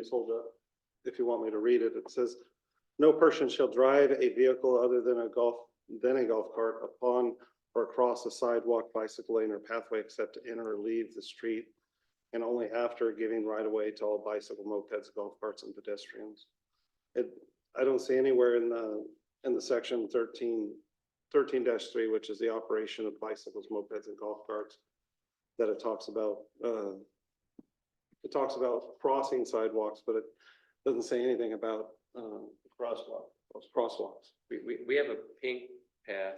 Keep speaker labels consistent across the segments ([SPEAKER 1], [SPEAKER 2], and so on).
[SPEAKER 1] Just hold up, if you want me to read it, it says, no person shall drive a vehicle other than a golf, than a golf cart upon or across a sidewalk, bicycle lane, or pathway except to enter or leave the street, and only after giving right of way to all bicycle mopeds, golf carts, and pedestrians. It, I don't see anywhere in the, in the section 13 three, which is the operation of bicycles, mopeds, and golf carts, that it talks about, uh, it talks about crossing sidewalks, but it doesn't say anything about, um,
[SPEAKER 2] crosswalk.
[SPEAKER 1] those crosswalks.
[SPEAKER 3] We, we, we have a pink path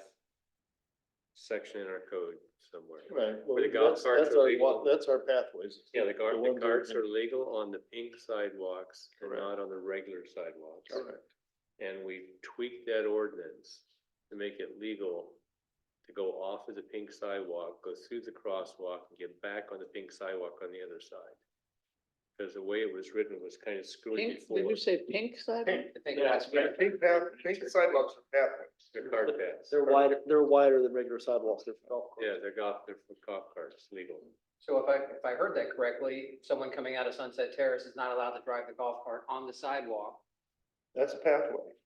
[SPEAKER 3] section in our code somewhere.
[SPEAKER 2] Right. well,
[SPEAKER 3] Where the golf
[SPEAKER 2] that's-
[SPEAKER 3] carts
[SPEAKER 2] That's
[SPEAKER 3] are
[SPEAKER 2] our,
[SPEAKER 3] legal.
[SPEAKER 2] wa- that's our pathways.
[SPEAKER 3] Yeah, the gar,
[SPEAKER 2] The
[SPEAKER 3] the
[SPEAKER 2] ones that are
[SPEAKER 3] carts
[SPEAKER 2] in-
[SPEAKER 3] are legal on the pink sidewalks and
[SPEAKER 2] Correct.
[SPEAKER 3] not on the regular sidewalks.
[SPEAKER 2] Correct.
[SPEAKER 3] And we tweaked that ordinance to make it legal to go off of the pink sidewalk, go through the crosswalk and get back on the pink sidewalk on the other side. Cause the way it was written was kind of screwy.
[SPEAKER 4] Pink, did you say pink sidewalk?
[SPEAKER 2] Yeah, yeah, Pink path, pink sidewalks are pathways.
[SPEAKER 3] The cart paths.
[SPEAKER 5] They're wider, they're wider than regular sidewalks, they're golf courses.
[SPEAKER 3] Yeah, they're golf, they're for golf carts, legal.
[SPEAKER 4] So if I, if I heard that correctly, someone coming out of Sunset Terrace is not allowed to drive the golf cart on the sidewalk.
[SPEAKER 2] That's a pathway.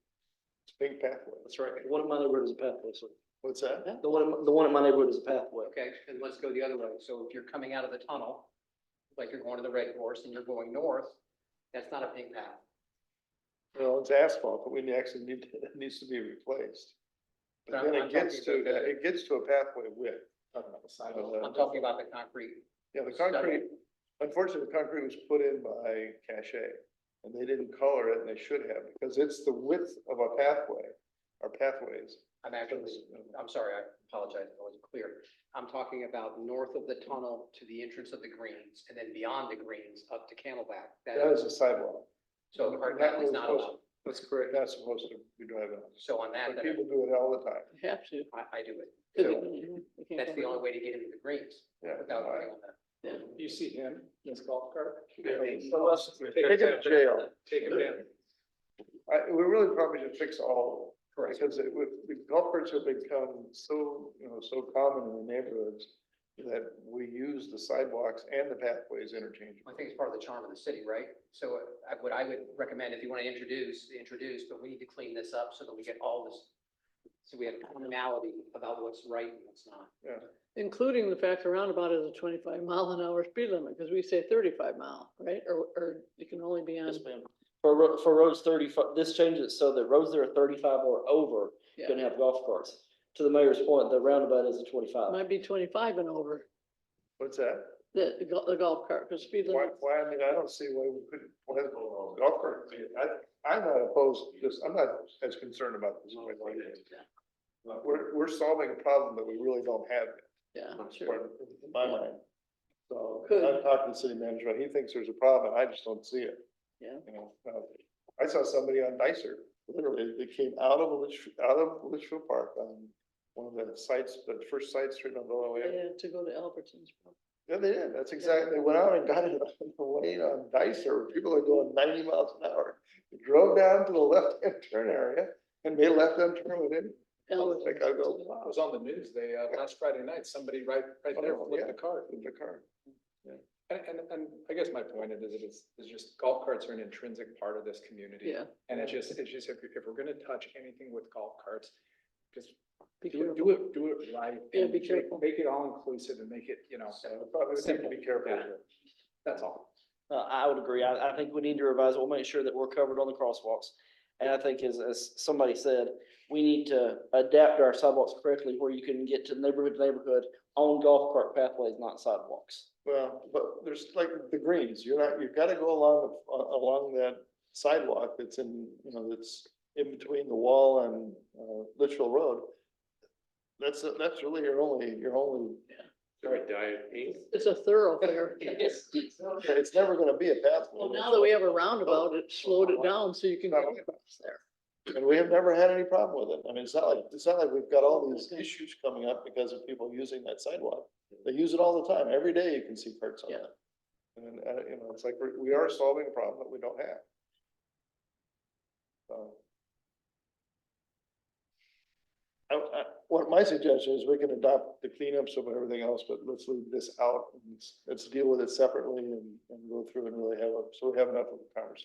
[SPEAKER 2] It's a big pathway.
[SPEAKER 5] That's right, the one in my neighborhood is a pathway, so,
[SPEAKER 2] What's that?
[SPEAKER 5] the one, in my- the one in my neighborhood is a pathway.
[SPEAKER 4] Okay, and let's go the other way. So if you're coming out of the tunnel, like you're going to the Red Horse and you're going north, that's not a pink path.
[SPEAKER 2] Well, it's asphalt, but we actually need, it needs to be replaced. But then it gets to, it gets to a pathway width. Uh,
[SPEAKER 4] I'm talking about the concrete.
[SPEAKER 2] Yeah, the
[SPEAKER 4] Stuck.
[SPEAKER 2] concrete, unfortunately, the concrete was put in by Cache, and they didn't color it, and they should have, because it's the width of a pathway, or pathways.
[SPEAKER 4] I'm actually, I'm sorry, I apologize, if I wasn't clear. I'm talking about north of the tunnel to the entrance of the greens and then beyond the greens up to Camelback. That
[SPEAKER 2] That
[SPEAKER 4] is,
[SPEAKER 2] is a sidewalk.
[SPEAKER 4] so the cart path is not allowed.
[SPEAKER 2] That's correct. Not supposed to be driving on.
[SPEAKER 4] So on that,
[SPEAKER 2] But
[SPEAKER 4] then
[SPEAKER 2] people do it all the time.
[SPEAKER 6] Have to.
[SPEAKER 4] I, I do it.
[SPEAKER 6] because
[SPEAKER 4] So
[SPEAKER 6] you- you can't
[SPEAKER 4] that's
[SPEAKER 6] go
[SPEAKER 4] the
[SPEAKER 6] back.
[SPEAKER 4] only way to get into the greens
[SPEAKER 2] Yeah.
[SPEAKER 4] without running on that.
[SPEAKER 6] Yeah.
[SPEAKER 7] You see him, in his golf cart.
[SPEAKER 2] Take him to jail.
[SPEAKER 7] Take him in.
[SPEAKER 2] I, we really probably should fix all of them,
[SPEAKER 4] Correct.
[SPEAKER 2] because it, with, the golf carts have become so, you know, so common in the neighborhoods that we use the sidewalks and the pathways interchangeably.
[SPEAKER 4] I think it's part of the charm of the city, right? So uh, I- what I would recommend, if you want to introduce, introduce, but we need to clean this up so that we get all this, so we have commonality about what's right and what's not.
[SPEAKER 6] Including the fact the roundabout is a twenty-five mile an hour speed limit, because we say thirty-five mile, right? Or, or you can only be on,
[SPEAKER 5] Yes, ma'am. For, ro- for roads thirty-five, this changes it so that roads that are thirty-five or over
[SPEAKER 6] Yeah.
[SPEAKER 5] can have golf carts. To the mayor's point, the roundabout is a twenty-five.
[SPEAKER 6] might be twenty-five and over,
[SPEAKER 2] What's that?
[SPEAKER 6] the, the gol- the golf cart, because speed
[SPEAKER 2] Why,
[SPEAKER 6] limit.
[SPEAKER 2] why, I mean, I don't see why we couldn't, why the golf cart, I, I'm not opposed, to this. I'm not as concerned about this. We're, we're solving a problem that we really don't have.
[SPEAKER 6] Yeah, sure.
[SPEAKER 2] in my mind. So,
[SPEAKER 6] Could.
[SPEAKER 2] I'm talking to city manager, he thinks there's a problem, I just don't see it.
[SPEAKER 6] Yeah.
[SPEAKER 2] You know, uh, I saw somebody on Nicer, literally, they came out of Litchfield, out of Litchfield Park on one of the sites, the first side street on Illinois. Avenue.
[SPEAKER 6] Yeah, to go to Albertsons.
[SPEAKER 2] Yeah, they did, that's exactly, they went out and got it on the lane on Dicer, where people are going ninety miles an hour. They Drove down to the left-hand turn area and made a left-hand turn with it. I was
[SPEAKER 6] Albertsons.
[SPEAKER 2] like, I go,
[SPEAKER 7] It
[SPEAKER 2] wow,
[SPEAKER 7] was on the news, they, uh, last Friday night, somebody right, right there
[SPEAKER 2] Oh,
[SPEAKER 7] flipped
[SPEAKER 2] yeah.
[SPEAKER 7] the cart.
[SPEAKER 2] in the car.
[SPEAKER 7] And, and, and I guess my point is, it is, is just golf carts are an intrinsic part of this community.
[SPEAKER 6] Yeah,
[SPEAKER 7] And it's just, it's just, if, if we're gonna touch anything with golf carts, just
[SPEAKER 6] be
[SPEAKER 7] do it,
[SPEAKER 6] careful.
[SPEAKER 7] do it, do it right.
[SPEAKER 6] Yeah,
[SPEAKER 7] and
[SPEAKER 6] be
[SPEAKER 7] make-
[SPEAKER 6] careful.
[SPEAKER 7] Make it all inclusive and make it, you know,
[SPEAKER 2] So I Probably just have to be careful.
[SPEAKER 7] Yeah.
[SPEAKER 2] here.
[SPEAKER 7] that's all.
[SPEAKER 5] Uh, I would agree. I, I think we need to revise. it. We'll make sure that we're covered on the crosswalks. And I think as, as somebody said, we need to adapt our sidewalks correctly where you can get to neighborhood to neighborhood on golf cart pathways, not sidewalks.
[SPEAKER 2] Well, but there's like the greens, you're not, you've gotta go along, the- a- along that sidewalk that's in, you know, that's in between the wall and, uh, Litchfield Road. That's, that's really your only, your only
[SPEAKER 3] So we dye it pink?
[SPEAKER 6] It's a thoroughfare.
[SPEAKER 4] Yes.
[SPEAKER 2] Yeah, It's never gonna be a pathway.
[SPEAKER 6] Well, now that we have a roundabout, it slowed it down so you can go across there.
[SPEAKER 2] And we have never had any problem with it. I mean, it's not like, it's not like we've got all these issues coming up because of people using that sidewalk. They use it all the time. Every day you can see carts on
[SPEAKER 6] Yeah.
[SPEAKER 2] it. And, uh, you know, it's like, we're- we are solving a problem that we don't have. So. I, I, What my suggestion is we can adopt the cleanups of everything else, but let's leave this out and let's- let's deal with it separately and, and go through and really have a, so we have enough of a conversation.